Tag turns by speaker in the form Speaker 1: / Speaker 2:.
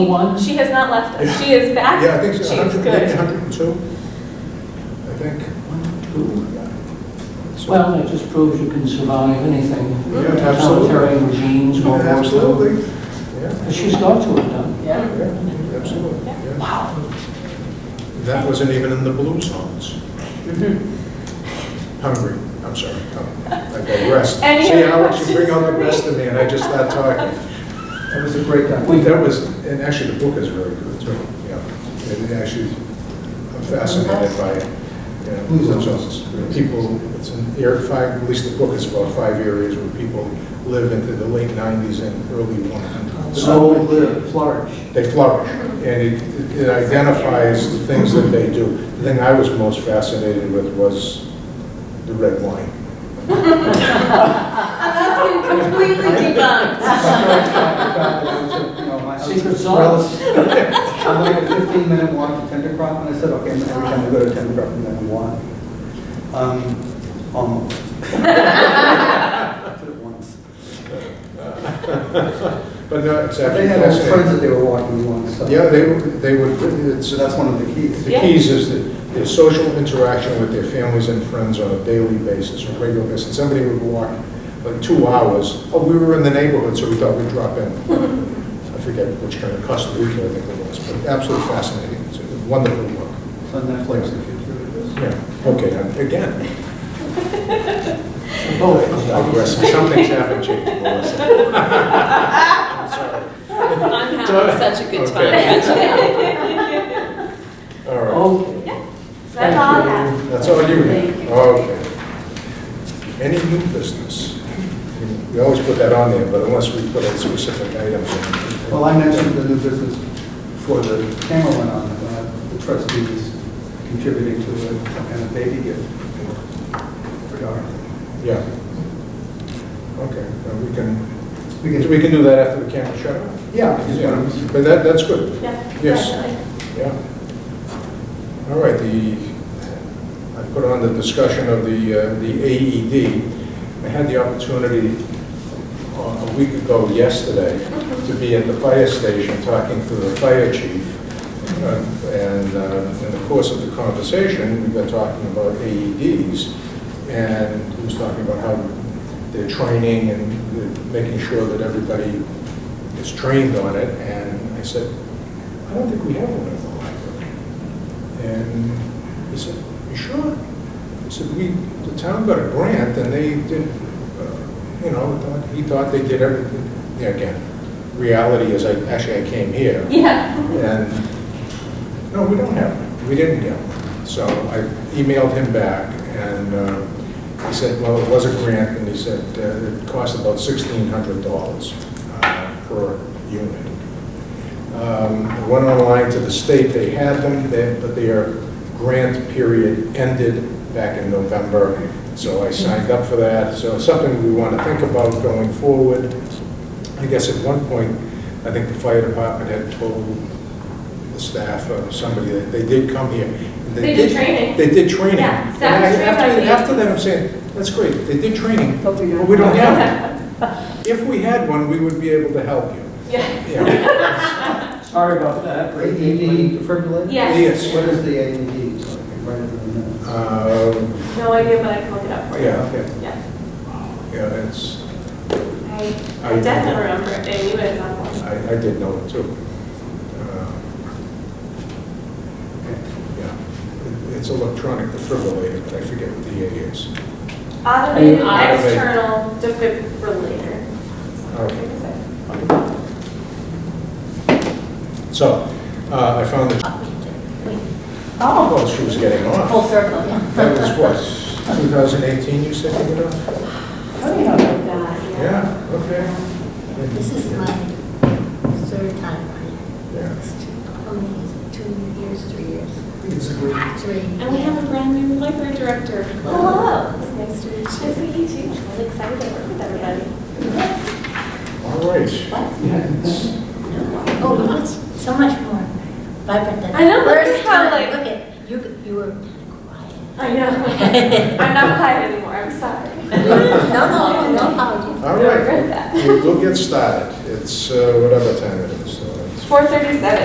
Speaker 1: One?
Speaker 2: She has not left us. She is back.
Speaker 3: Yeah, I think
Speaker 2: She
Speaker 3: so,
Speaker 2: is
Speaker 3: 100 maybe
Speaker 2: good.
Speaker 3: 102, I think. So-
Speaker 1: Well, it just proves you can survive anything.
Speaker 3: Yeah,
Speaker 1: Totalitarian regimes,
Speaker 3: Yeah,
Speaker 1: all that stuff.
Speaker 3: Absolutely, yeah,
Speaker 1: But She's got to have done.
Speaker 2: Yeah.
Speaker 3: yeah, absolutely, yeah.
Speaker 1: Wow.
Speaker 3: That wasn't even in the blues songs. Hungry, I'm sorry, hungry. I digress.
Speaker 2: Mm-hmm. Any
Speaker 3: See,
Speaker 2: other
Speaker 3: I want you to
Speaker 2: questions
Speaker 3: bring out
Speaker 2: for
Speaker 3: the
Speaker 2: me?
Speaker 3: best in me, and I just start talking. That was a great time. That was, and actually, the book is very good, too, yeah. And actually, I'm fascinated by, you know, blues songs. People, it's an air, five, at least the book is about five areas where people live into the late 90s and early 100s.
Speaker 1: So live, flourish.
Speaker 3: They flourish, and it it identifies the things that they do. The thing I was most fascinated with was the red wine.
Speaker 2: That's been completely debunked.
Speaker 1: Secret
Speaker 4: Secret
Speaker 1: sauce.
Speaker 4: I'm like a 15-minute walk to Tender Croft, and I said, okay, every time I go to Tender Croft, I'm going to walk. Um, Almost. I did it once.
Speaker 3: But no, it's
Speaker 4: They
Speaker 3: actually
Speaker 4: had old friends that
Speaker 3: fascinating.
Speaker 4: they were walking once, so.
Speaker 3: Yeah, they, would- they would, it's,
Speaker 4: So that's one of the keys.
Speaker 3: the keys is that their social interaction with their families and friends on a daily basis, or regular basis. Somebody would walk like two hours, oh, we were in the neighborhood, so we thought we'd drop in. I forget which kind of custom retail I think it was, but absolutely fascinating, it's a wonderful book.
Speaker 4: It's on Netflix if you're curious.
Speaker 3: Yeah, okay, I'm- again, Oh,
Speaker 1: Both.
Speaker 3: digressing, some things haven't changed, Melissa. I'm sorry.
Speaker 2: I'm having such a good time.
Speaker 3: All right,
Speaker 1: Okay.
Speaker 2: That's all I have.
Speaker 3: that's all you have, okay. Any new business? We always put that on there, but unless we put a specific item. in.
Speaker 4: Well, I mentioned the new business before the camera went on, uh, the trustees contributing to a some kind of baby gift for Darrell.
Speaker 3: Yeah. Okay, well, we can, we can do that after the camera shut off.
Speaker 4: Yeah, I just
Speaker 3: Yeah,
Speaker 4: want to-
Speaker 3: But that, that's good.
Speaker 2: Yeah,
Speaker 3: Yes.
Speaker 2: definitely.
Speaker 3: Yeah. All right, the, I put on the discussion of the, uh, the AED. I had the opportunity uh, a week ago yesterday to be at the fire station talking to the fire chief. Uh, And uh, in the course of the conversation, we got talking about AEDs. And he was talking about how they're training and making sure that everybody is trained on it. And I said, I don't think we have one at the library. And he said, you sure? He said, we, the town got a grant and they did, uh, you know, thought- he thought they did everything. Yeah, Again, reality is, I, actually, I came here
Speaker 2: Yeah.
Speaker 3: and, no, we don't have one. We didn't get one. So I emailed him back and uh, he said, well, it was a grant and he said uh, it cost about $1,600 uh, per unit. Um, I Went online to the state, they had them, they- but their grant period ended back in November, so I signed up for that. So it's something we want to think about going forward. I guess at one point, I think the fire department had told the staff or somebody that they did come here. and
Speaker 2: They did training.
Speaker 3: They did training.
Speaker 2: Yeah,
Speaker 3: And
Speaker 2: staff
Speaker 3: I-
Speaker 2: was trained
Speaker 3: after-
Speaker 2: by the-
Speaker 3: After that, I'm saying, that's great, they did training, but
Speaker 5: we don't
Speaker 3: we don't have it. If we had one, we would be able to help you.
Speaker 2: Yeah.
Speaker 3: Yeah.
Speaker 1: Sorry about that.
Speaker 4: AED defibrillator?
Speaker 2: Yes.
Speaker 3: Yes.
Speaker 4: What is the AED? So I can write it in the minutes.
Speaker 3: Um,
Speaker 2: No idea, but I can look it up for you.
Speaker 3: Yeah, okay.
Speaker 2: Yeah.
Speaker 3: yeah, it's,
Speaker 2: I-
Speaker 3: I-
Speaker 2: I definitely remember it. and you guys have one.
Speaker 3: I, I did know it too. Uh, Yeah, It- It's electronic defibrillator, but I forget what the A is.
Speaker 2: Automated
Speaker 3: Automated.
Speaker 2: external defibrillator.
Speaker 3: Okay. So, uh, I found that,
Speaker 5: Oh,
Speaker 3: well, she was getting
Speaker 5: full
Speaker 3: off.
Speaker 6: Oh.
Speaker 5: circle, yeah.
Speaker 3: That was what, 2018 you said you got off? Yeah, okay.
Speaker 6: This is my third time running.
Speaker 3: Yeah.
Speaker 6: How many is it? Two years, three years?
Speaker 4: It's a great-
Speaker 6: Three.
Speaker 2: And we have a brand new library director.
Speaker 6: Hello.
Speaker 2: It's nice to meet you. Nice to meet you. I'm excited to work with everybody.
Speaker 3: All right.
Speaker 6: Oh, no, it's so much more vibrant than
Speaker 2: I know,
Speaker 6: the
Speaker 2: look at
Speaker 6: first
Speaker 2: how,
Speaker 6: time.
Speaker 2: like-
Speaker 6: Look at, you, you were kind
Speaker 2: I know. I'm not quiet anymore, I'm sorry.
Speaker 6: of quiet. No, no, no apology.
Speaker 3: All
Speaker 2: I regret
Speaker 3: right,
Speaker 2: that.
Speaker 3: we'll we'll get started. It's uh, whatever time it is, so it's
Speaker 2: Four thirty-seven.